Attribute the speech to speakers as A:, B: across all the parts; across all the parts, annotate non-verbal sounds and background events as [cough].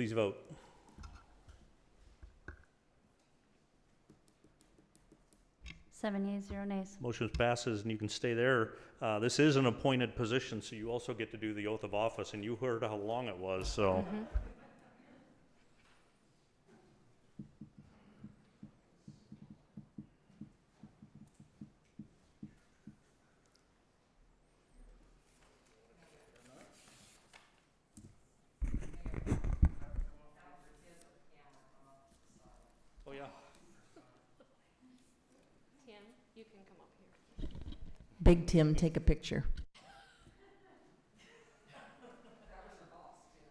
A: Please vote.
B: Seven yeas, zero nays.
A: Motion passes, and you can stay there. Uh, This is an appointed position, so you also get to do the oath of office, and you heard how long it was, so. Oh, yeah.
C: Tim, you can come up here.
D: Big Tim, take a picture.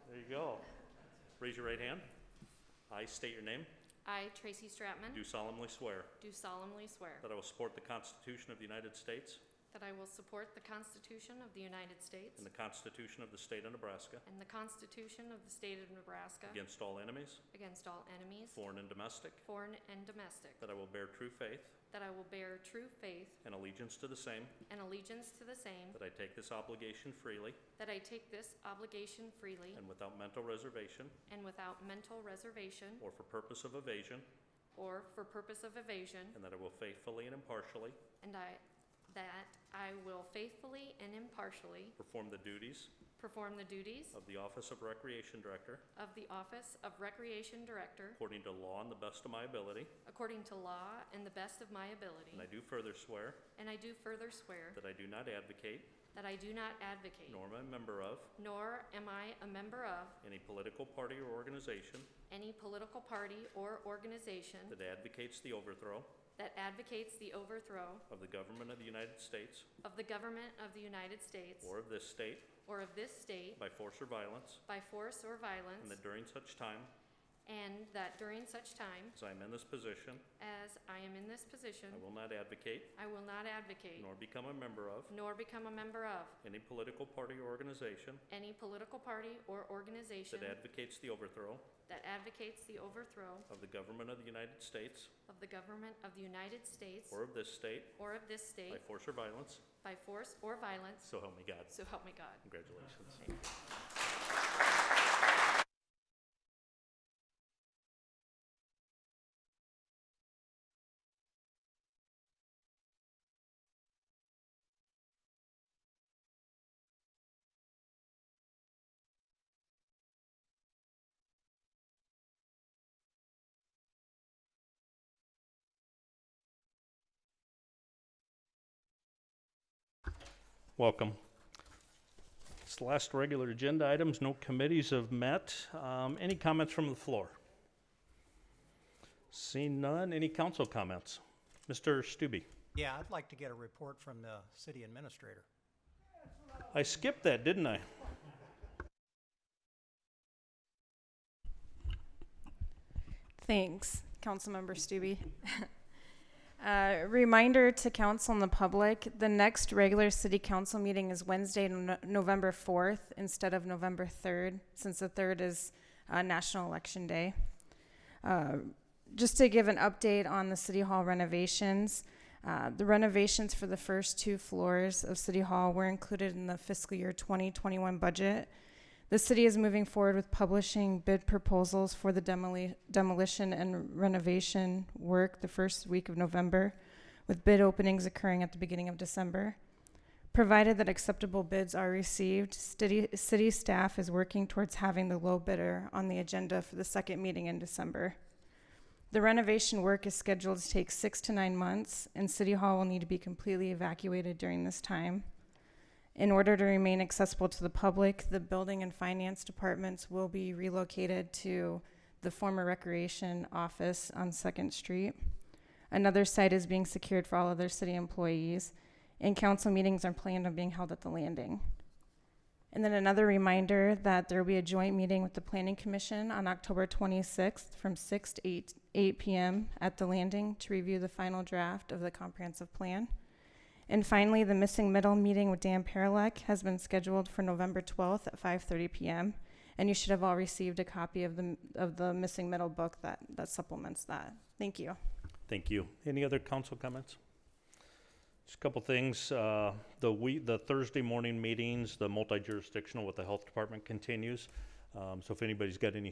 A: There you go. Raise your right hand. I state your name.
C: I, Tracy Stratman,
A: Do Oh. solemnly swear
C: do solemnly swear
A: that I will support the Constitution of the United States
C: that I will support the Constitution of the United States
A: and the Constitution of the State of Nebraska
C: and the Constitution of the State of Nebraska
A: against all enemies,
C: against all enemies,
A: foreign Oh. and domestic,
C: foreign and domestic,
A: that I will bear true faith
C: that I will bear true faith
A: and allegiance to the same,
C: and allegiance to the same,
A: that I take this obligation freely
C: that I take this obligation freely
A: and without mental reservation
C: and without mental reservation
A: or for purpose of evasion,
C: or for purpose of evasion,
A: and that I will faithfully and impartially
C: and I, that I will faithfully and impartially
A: perform the duties
C: perform the duties
A: of the Office of Recreation Director
C: of the Office of Recreation Director
A: according to law and the best of my ability.
C: According to law and the best of my ability.
A: And I do further swear
C: And I do further swear
A: that I do not advocate
C: that I do not advocate,
A: nor am I a member of
C: nor am I a member of,
A: any political party or organization
C: any political party or organization
A: that advocates the overthrow
C: that advocates the overthrow
A: of the government of the United States
C: of the government of the United States
A: or of this state
C: or of this state
A: by force or violence,
C: by force or
A: and
C: violence,
A: that during such time
C: and that during such time
A: as I am in this position,
C: as I am in this position,
A: I will not advocate
C: I will not advocate,
A: nor become a member of
C: nor become a member of,
A: any political party or organization
C: any political party or organization
A: that advocates the overthrow
C: that advocates the overthrow
A: of the government of the United States
C: of the government of the United States
A: or of this state
C: or of this
A: by
C: state
A: force or violence,
C: by force or violence,
A: so help me God.
C: so help me God.
A: Congratulations. Welcome. It's the last regular agenda items, no committees have met. Um, Any comments from the floor? Seeing none, any council comments? Mr. Stube?
E: Yeah, I'd like to get a report from the city administrator.
A: I skipped that, didn't I?
F: Thanks, Councilmember Stube. [laughs] Uh, Reminder to council and the public, the next regular city council meeting is Wednesday, No- November 4th, instead of November 3rd, since the 3rd is uh, National Election Day. Uh, Just to give an update on the City Hall renovations, uh, the renovations for the first two floors of City Hall were included in the fiscal year 2021 budget. The city is moving forward with publishing bid proposals for the demoli- demolition and renovation work the first week of November, with bid openings occurring at the beginning of December. Provided that acceptable bids are received, city, city staff is working towards having the low bidder on the agenda for the second meeting in December. The renovation work is scheduled to take six to nine months, and City Hall will need to be completely evacuated during this time. In order to remain accessible to the public, the building and finance departments will be relocated to the former recreation office on Second Street. Another site is being secured for all other city employees, and council meetings are planned on being held at the landing. And then another reminder that there will be a joint meeting with the planning commission on October twenty-sixth from six to eight, eight PM at the landing to review the final draft of the comprehensive plan. And finally, the missing middle meeting with Dan Paralek has been scheduled for November 12th at 5:30 p.m. And you should have all received a copy of the of the missing middle book that that supplements that. Thank you.
A: Thank you. Any other council comments? Just a couple things. uh, The we, the Thursday morning meetings, the multi-jurisdictional with the health department continues. Um, So if anybody's got any